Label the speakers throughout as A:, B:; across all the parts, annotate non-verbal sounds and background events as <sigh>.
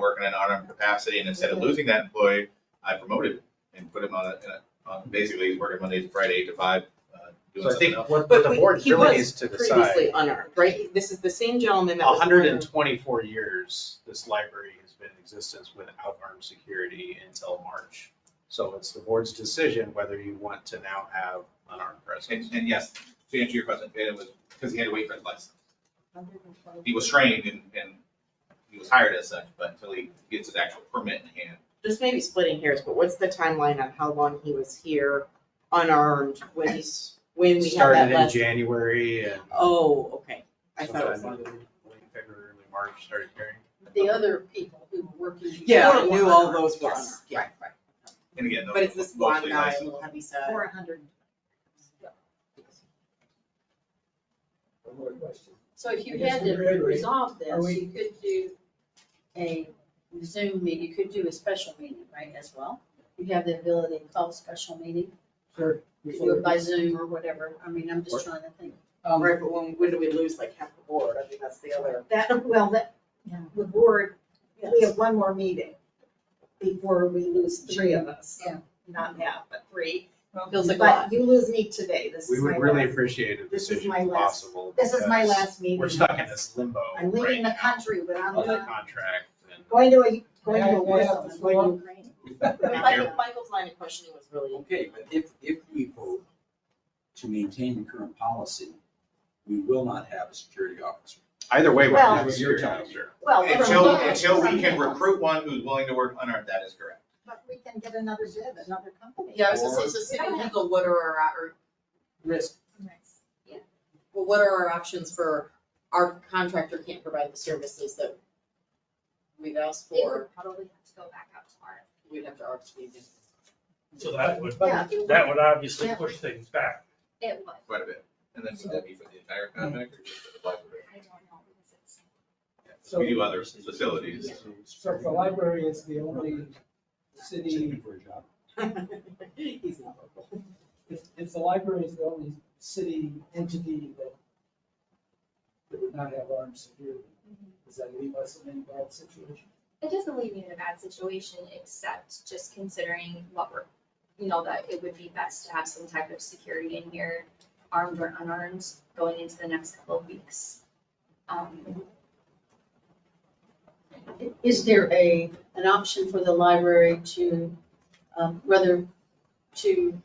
A: working in an RM capacity, and instead of losing that employee, I promoted him and put him on a, in a- on, basically, he's working Monday to Friday, eight to five, uh,
B: So
A: doing
B: I
A: something
B: think
A: else.
B: what what
C: But
B: the
C: we-
B: board
C: he
B: really
C: was
B: needs to decide,
C: previously unarmed, right? He- This is the same gentleman that was.
B: hundred and twenty-four years, this library has been in existence without armed security until March. So it's the board's decision whether you want to now have unarmed
A: And,
B: presence.
A: and yes, to answer your question, it was, because he had to wait for his license. He
C: 120.
A: was trained and, and he was hired as such, but until he gets his actual permit in hand,
C: This may be splitting hairs, but what's the timeline on how long he was here unarmed when he's, when we had that
B: Started in
C: last?
B: January and
C: Oh, okay. I thought it was
B: sometime
C: longer.
B: in late February, early March started hearing.
D: the other people who were working. before
C: Yeah, I
D: were
C: knew all
D: unarmed.
C: those were unarmed,
D: Yes,
C: yeah.
D: Right, right.
A: and again, those
C: But it's this
A: are
C: blonde
A: mostly
C: guy, a
A: licensed.
C: little heavy set.
D: Four hundred.
E: One more question.
D: So if you
E: I guess
D: had
E: we
D: to
E: agree.
D: resolve
E: Are
D: this,
E: we-
D: you could do a Zoom meeting, you could do a special meeting, right, as well? You have the ability to call a special meeting,
E: Sir.
D: you could do it by Zoom or whatever, I mean, I'm just trying to think.
E: Um,
C: Right, but when, when do we lose like half the board? I think that's the other.
F: That, well, that, the board, we
C: Yes.
F: have one more meeting before we lose three of us.
D: Yeah.
F: Not half, but three.
C: Feels like a lot.
F: But you lose me today, this
B: We
F: is my
B: would really
F: last,
B: appreciate a
F: This is
B: decision
F: my
B: if
F: last-
B: possible.
F: this is my
B: because
F: last meeting.
B: We're stuck in this limbo,
F: I'm
B: right?
F: leaving the country, but I'm
B: Of the
F: going,
B: contract and.
F: going to, a- going
E: Yeah,
F: to
E: yeah,
F: a war zone,
E: that's
F: going to
E: one.
F: Ukraine.
C: Michael- Michael's line of questioning was really,
E: <laughs> Okay, but if, if we vote to maintain the current policy, we will not have a security officer.
B: Either way, we're
F: Well-
B: gonna have a security officer.
F: Well, we're
A: Until,
F: looking at
A: until we can
F: something else.
A: recruit one who's willing to work unarmed, that is correct.
F: But we can get another job, another company.
D: Yeah, I was gonna say, so city legal, what are our, our-
E: Risk.
D: well, what are our options for, our contractor can't provide the services that we've asked
G: They
D: for,
G: would probably have to go back out tomorrow.
D: we'd have to RFP again.
H: So that would,
F: Yeah.
H: that would obviously
F: Yeah.
H: push things back.
G: It would,
A: quite a bit. And then would that be for the entire contract or just for the library?
G: I don't know, because it's,
A: We do other facilities.
E: So if the library is the only city,
C: he's not local.
E: if, if the library is the only city entity that that would not have armed security,
F: Mm-hmm.
E: does that leave us in a bad situation?
G: it doesn't leave me in a bad situation, except just considering what we're, you know, that it would be best to have some type of security in here, armed or unarmed, going into the next couple of weeks. Um,
D: Is there a, an option for the library to, um, rather, to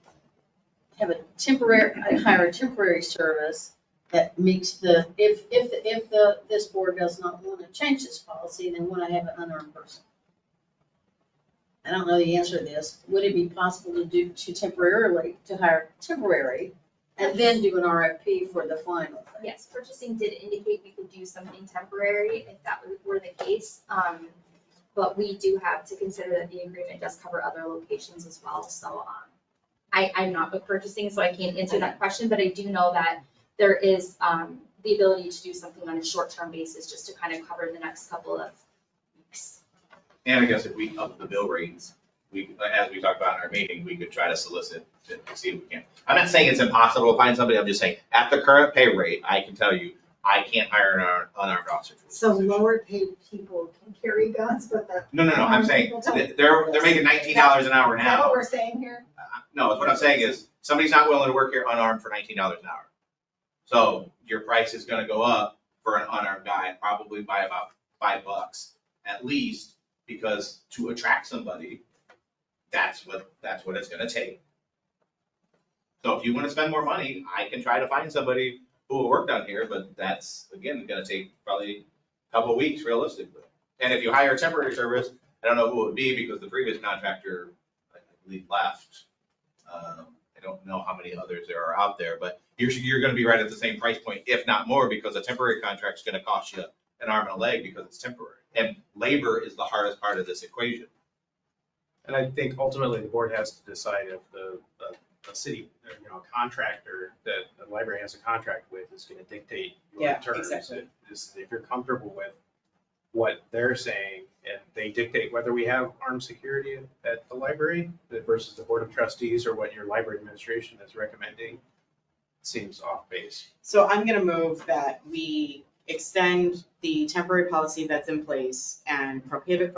D: have a temporary, hire a temporary service that meets the, if, if, if the, this board does not want to change this policy, then want to have an unarmed person? I don't know the answer to this. Would it be possible to do, to temporarily, to hire temporary and then do an RFP for the final thing?
G: yes, purchasing did indicate we could do something temporary if that were the case. Um, but we do have to consider that the agreement does cover other locations as well, so, um, I, I'm not book purchasing, so I can't answer that question, but I do know that there is, um, the ability to do something on a short-term basis, just to kind of cover the next couple of weeks.
A: And I guess if we up the bill rates, we, as we talked about in our meeting, we could try to solicit to see if we can. I'm not saying it's impossible to find somebody, I'm just saying, at the current pay rate, I can tell you, I can't hire an unarmed- unarmed officer. for this
F: So
A: position.
F: lower paid people can carry guns, but the.
A: No, no, no, I'm
F: Um,
A: saying,
F: people don't.
A: that they're, they're making nineteen dollars an hour
F: Is that what
A: now.
F: we're saying here?
A: Uh, No, it's what I'm saying is, somebody's not willing to work here unarmed for nineteen dollars an hour. So your price is gonna go up for an unarmed guy, probably by about five bucks at least, because to attract somebody, that's what, that's what it's gonna take. So if you wanna spend more money, I can try to find somebody who will work down here, but that's, again, gonna take probably a couple weeks realistically. And if you hire a temporary service, I don't know who it would be, because the previous contractor, I believe, left. Um, I don't know how many others there are out there, but you're, you're gonna be right at the same price point, if not more, because a temporary contract's gonna cost you an arm and a leg because it's temporary. And labor is the hardest part of this equation.
B: And I think ultimately the board has to decide if the, the, the city, you know, contractor that the library has a contract with is gonna dictate your
C: Yeah,
B: terms.
C: exactly.
B: If this- if you're comfortable with what they're saying and they dictate whether we have armed security at the library versus the board of trustees or what your library administration is recommending, seems off base.
C: So I'm gonna move that we extend the temporary policy that's in place and prohibit